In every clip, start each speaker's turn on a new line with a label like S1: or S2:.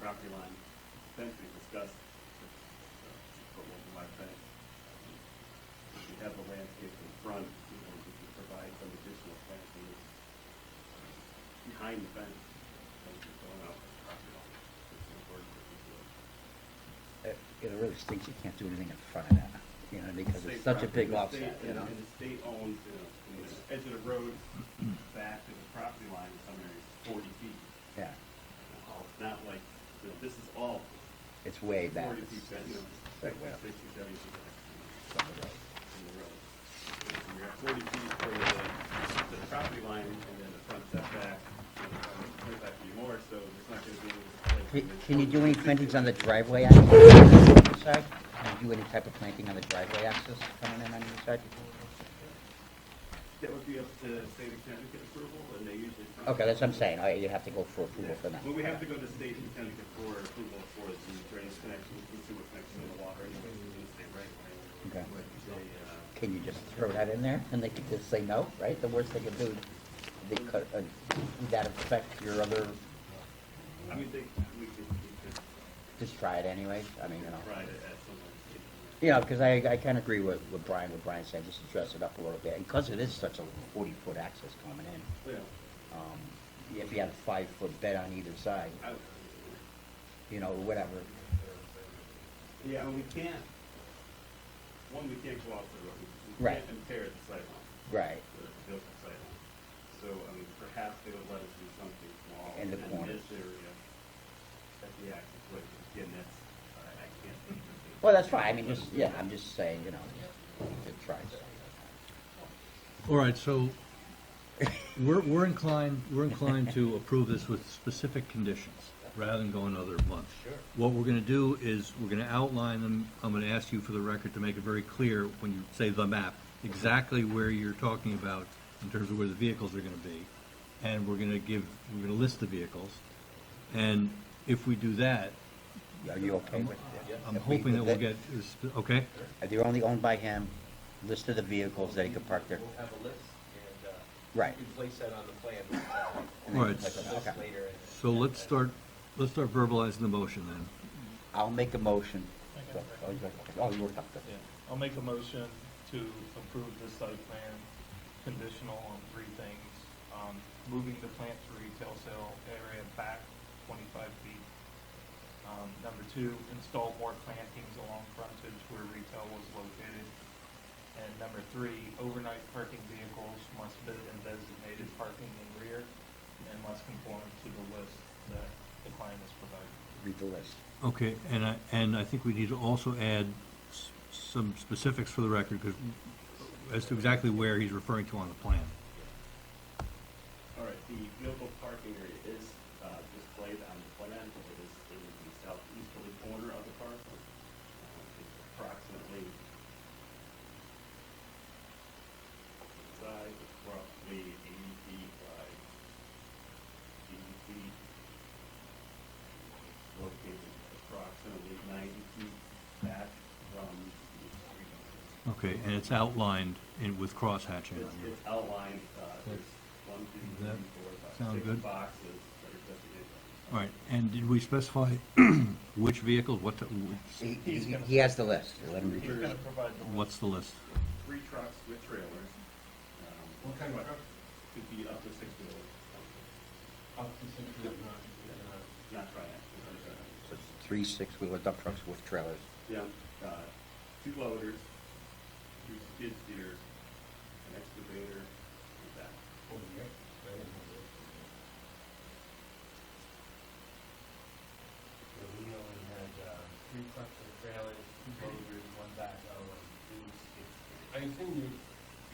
S1: property line fence we discussed, uh, for local wire fence. If you have the landscape in front, you know, you can provide some additional fencing behind the fence, fences going out the property line. It's gonna work with the field.
S2: It it really stinks you can't do anything in front of that, you know, because
S1: State
S2: it's such a
S1: property,
S2: big
S1: the
S2: offset,
S1: state-
S2: you know?
S1: And the state owns, you know, from the edge of the road back to the property line in some areas, forty feet.
S2: Yeah,
S1: It's not like, you know, this is all
S2: it's way back.
S1: forty feet, back, you know,
S2: Back way up
S1: 60, 70 feet back
S2: from the road.
S1: from the road. So You're at forty feet from the, to the property line and then the front setback, you know, probably twenty-five feet more, so there's not gonna be any.
S2: Can- Can you do any plantings on the driveway access on the other side? Can you do any type of planting on the driveway access coming in on the other side?
S1: That would be up to state and Connecticut approval, and they usually.
S2: Okay, that's what I'm saying, All right, you have to go for approval for that.
S1: Well, we have to go to state and Connecticut for approval for the drainage connection, the sewer connection in the water, and the state right away.
S2: Okay.
S1: But they, uh,
S2: Can you just throw that in there, and they could just say no, right? The worst they could do, they could, uh, would that affect your other,
S1: I mean, they, we could, we could
S2: just try it anyways, I mean, you know?
S1: try to add someone.
S2: Yeah, because I, I kind of agree with, with Brian, what Brian said, just to dress it up a little bit, and because it is such a forty-foot access coming in,
S1: Yeah,
S2: um, if you had a five-foot bed on either side,
S1: I,
S2: you know, whatever,
S1: yeah, and we can't, one, we can't go off the road. We
S2: Right.
S1: can't impair the sidewalk,
S2: right,
S1: the built-in sidewalk. So, I mean, perhaps they would let us do something small.
S2: In the corners.
S1: this area, at the access, but again, that's, I I can't. think of it.
S2: well, that's fine, I mean, just, yeah, I'm just saying, you know, to try
S3: All right, so we're, we're inclined, we're inclined to approve this with specific conditions rather than go another month. Sure. What we're gonna do is we're gonna outline them. I'm gonna ask you for the record to make it very clear when you say the map, exactly where you're talking about in terms of where the vehicles are gonna be. And we're gonna give, we're gonna list the vehicles. And if we do that,
S2: Are you okay with it?
S3: I'm
S2: If we-
S3: hoping that we'll get, okay?
S2: If They're only owned by him, list of the vehicles that he could park there,
S4: We'll have a list, and, uh,
S2: right,
S4: you can place that on the plan, uh,
S2: and then
S3: Right.
S2: click on
S4: a
S2: it.
S4: list
S2: okay.
S4: later. and-
S3: So let's start, let's start verbalizing the motion then.
S2: I'll make a motion.
S5: Okay.
S2: Oh, you- Oh, you were up there.
S5: Yeah, I'll make a motion to approve the site plan conditional on three things. Um, moving the plant to retail sale area back twenty-five feet. Um, number two, install more plantings along frontage where retail was located. And number three, overnight parking vehicles must be in designated parking in rear and must conform to the list that the client has provided.
S2: Read the list.
S3: Okay, and I, and I think we need to also add s- some specifics for the record, because as to exactly where he's referring to on the plan.
S1: All right, the vehicle parking area is uh, displayed on the plan, but it is in the southeasterly corner of the parcel. Uh, It's approximately size is roughly eighty feet by eighty feet. Located approximately ninety feet back from the street.
S3: Okay, and it's outlined in, with crosshatching
S1: It's,
S3: on it.
S1: it's outlined, uh, there's one, two,
S3: That
S1: three, four, five,
S3: sound
S1: six
S3: good?
S1: boxes that are designated.
S3: All right, and did we specify which vehicles, what, the- what's-
S2: He, he he has the list, let him read it.
S5: He's gonna provide the list.
S3: what's the list?
S1: Three trucks with trailers. What kind of truck? Could be up to six wheelers,
S5: Up to six feet long, uh,
S1: not triaxles.
S2: So it's Three six-wheeler dump trucks with trailers.
S1: uh, Yeah, uh, two loaders, two skid steers, an excavator, and that.
S4: So we only had, uh, three trucks with trailers, two loaders, one backhoe, and two skid steers. I assume you,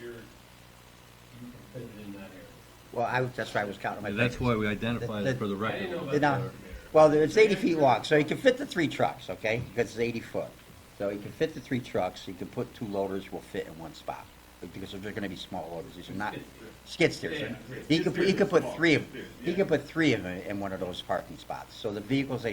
S4: you're, you can fit it in that area.
S2: Well, I, was- that's why I was counting my fingers.
S3: That's why we identified it for the
S4: I didn't know
S3: record.
S4: about
S2: Did not-
S4: the-
S2: Well, there- it's eighty feet long, so he can fit the three trucks, okay? Because it's eighty foot. So he can fit the three trucks, he can put two loaders will fit in one spot. Because they're gonna be small loaders, these are not, skid steers.
S1: Yeah, yeah.
S2: He could, he could put three, of
S1: Skid steers,
S2: he
S1: yeah.
S2: could put three of them in one of those parking spots. So the vehicles that he